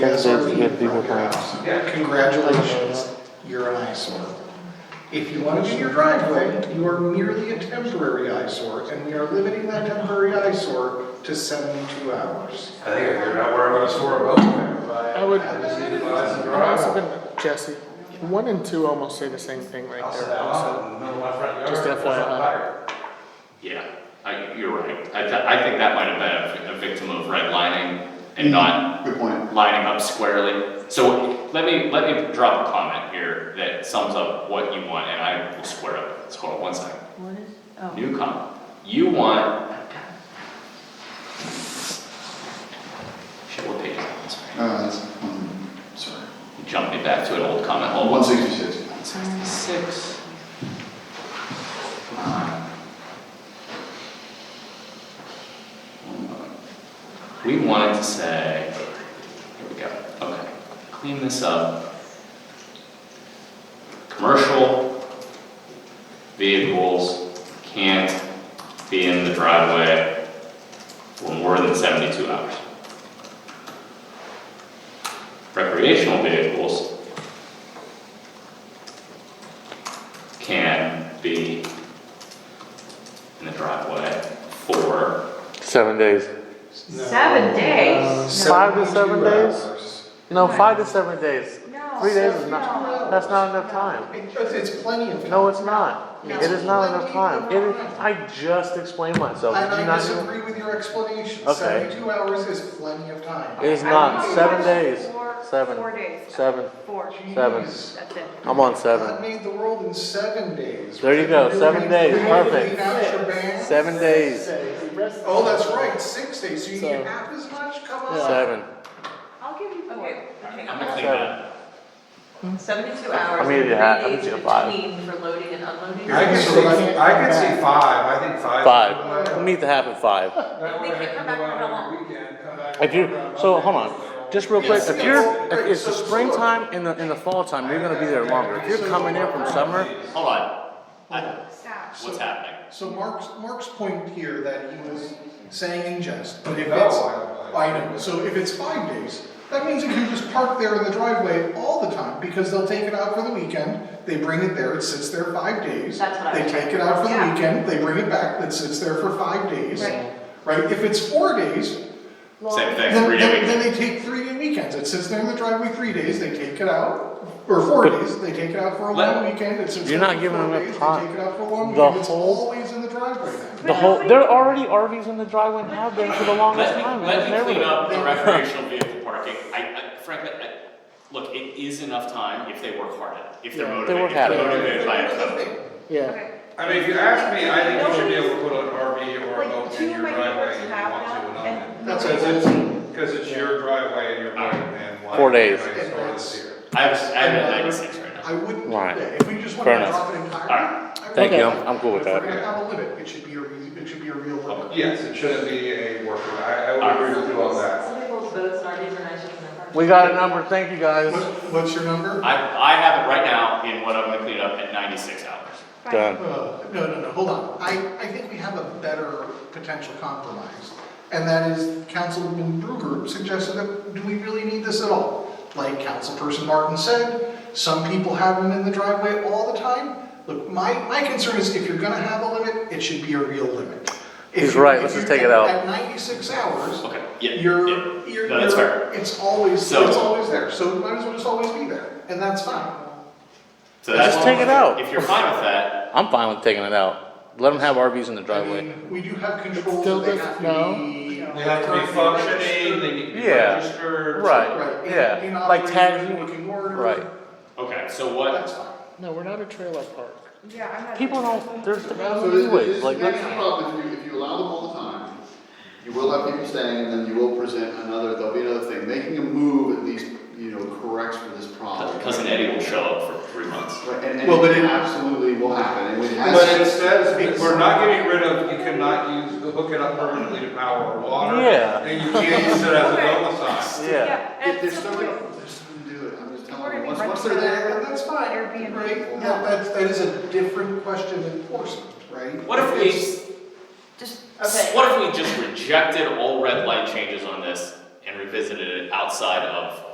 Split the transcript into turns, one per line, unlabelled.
Yes,
Those
sir.
good people times.
Congratulations, you're an eyesore. If you want to do your driveway, you are merely a temporary eyesore, and we are limiting that temporary eyesore to 72 hours.
I think I figured out where I'm gonna store a boat.
I would, I'd also been- Jesse, one and two almost say the same thing right
I'll set
there
that
also.
off in the middle of my front yard.
Just
That's
FYI.
not fire.
Yeah, I, you're right. I, th- I think that might have been a, a victim of redlining and not
Good point.
lining up squarely. So let me, let me drop a comment here that sums up what you want, and I will square up. with this. hold on one second.
What is, oh.
New comment. You want. Shit, what page is that? Sorry.
Uh, that's, um, sorry. Oh,
You jumped me back to an old comment. Hold on.
One sixty-six.
Six. We wanted to say, here we go, okay, clean this up. Commercial vehicles can't be in the driveway for more than seventy-two hours. Recreational vehicles can be in the driveway for,
Seven days.
Seven days?
Five to seven
72
days?
Uh, hours.
No, five to seven days.
No.
Three days is
No.
not, that's not enough time.
It- It's plenty of.
No, it's not.
No.
It is not enough time. It is, I just explained myself. Did you
And I
not hear?
disagree with your explanation.
Okay.
72 hours is plenty of time.
It is
I
not.
don't know,
Seven
it's
days.
four-
Seven.
Four days.
Seven.
Four.
Seven.
Jeez.
That's it.
I'm on
God
seven.
made the world in seven days.
There you go, seven days, perfect.
perfect.
Seven days.
Oh, that's right, six days, so you
So-
need half as much, come on.
Seven.
I'll give you
Okay,
four.
okay.
I'm gonna clean that.
Seventy-two hours,
I'm
three
gonna do that. I'm
days
gonna do five.
between for loading and unloading.
I can see, I can see five, I think five.
Five. We'll meet the half at five.
That way I can go out on the weekend, come back.
If you,
and-
so hold on, just real quick, if you're, if it's the
Yes, yes.
springtime and the, and the fall time, you're gonna be there longer. If you're coming in from summer,
Hold on, I-
Stop.
what's happening?
So Mark's, Mark's point here that he was saying in jest, but if
No,
it's,
I- I-
I know, so if it's five days, that means you can just park there in the driveway all the time, because they'll take it out for the weekend, they bring it there, it sits there five days.
That's what I
They
was
take it out for the
Yeah.
weekend, they bring it back, it sits there for five days.
Right.
Right, if it's four days,
Same thing,
Then,
three
then-
day
then
weekend.
they take three day weekends. It sits there in the driveway three days, they take it out, or four days, they take it out for a
Let-
long weekend, it sits
You're
there
not
for
giving
four
them enough
days, they
time.
take it out for a long
The
weekend. It's
whole-
always in the driveway then.
the whole, there are already RVs in the driveway and have been for the longest
Let me,
time.
let me
Never
clean
been.
up the recreational vehicle parking, I, I, frankly, I, look, it is enough time if they work hard at it, if they're
they
motivated,
work
if they're
hard at it.
motivated by it.
Yeah.
Okay.
I mean, if you ask me, I think you should be able to put an RV or a boat
Like,
in
two of
your
my neighbors
driveway if you
have
want to,
them,
and not in-
and.
That's
Because
a-
it's, because it's your driveway and your boat and. why
Four days.
can't I store this here?
I have, I have it at ninety-six right now.
I wouldn't do
Right.
that. If we just
Fair
wanted to
enough.
drop it entirely. I would-
Thank you, I'm, I'm cool with
If we're
that.
gonna have a limit, it should be a, re- it should be a real limit.
Yes, it shouldn't be a worker, I, I would agree with you on that.
Some people's boats aren't even nice in their front.
We got a number, thank you guys.
What, what's your number?
I, I have it right now in what I'm gonna clean up at ninety-six hours.
Done.
Uh, No, no, no, hold on. I, I think we have a better potential compromise. And that is Councilman Bruegger suggested that, do we really need this at all? Like Councilperson Martin said, some people have them in the driveway all the time. Look, my, my concern is if you're gonna have a limit, it should be a real limit. If
He's
you-
right,
if
let's
you-
just take it out.
At ninety-six hours,
Okay, yeah, yeah,
you're, you're,
No, that's fair.
you're, it's always, it's
So-
always there. So might as well just always be there, and that's fine.
so
Let's
that's.
just take it out.
If you're fine with that,
I'm fine with taking it out. Let them have RVs in the
I
driveway.
mean, we do have controls
still
that they
does-
have
no.
to be.
They have to be functioning, they need to be
Yeah.
registered.
Right,
in- in
yeah, like
operating,
tags,
in working order.
right.
Okay, so what,
That's fine.
No, we're not a trailer park.
Yeah, I'm not.
People don't, there's the
So it- it
ways,
is-
like,
That's the problem, if you, if you allow them all the time, you will have people staying, and then you will present another, there'll be another thing, making a move at least, you know, corrects for this problem.
Uh, cousin Eddie will show up for three months.
Right, And, and
Well, but
it
it-
absolutely will happen, and it has.
But it says, we're not getting rid of, you cannot use, hook it up permanently to power or water.
Yeah.
And you can't use it as a domicile.
yeah.
and
If they're
so
still
we're-
gonna, they're still gonna do it, I'm just
We're
telling
gonna
you,
be
once,
right
once
to
they're there,
that.
And that's fine.
Airbnb.
Right,
Yeah.
well, that's, that is a different question than enforcement, right?
What if we,
Just,
Okay.
what if we just rejected all red light changes on this and revisited it outside of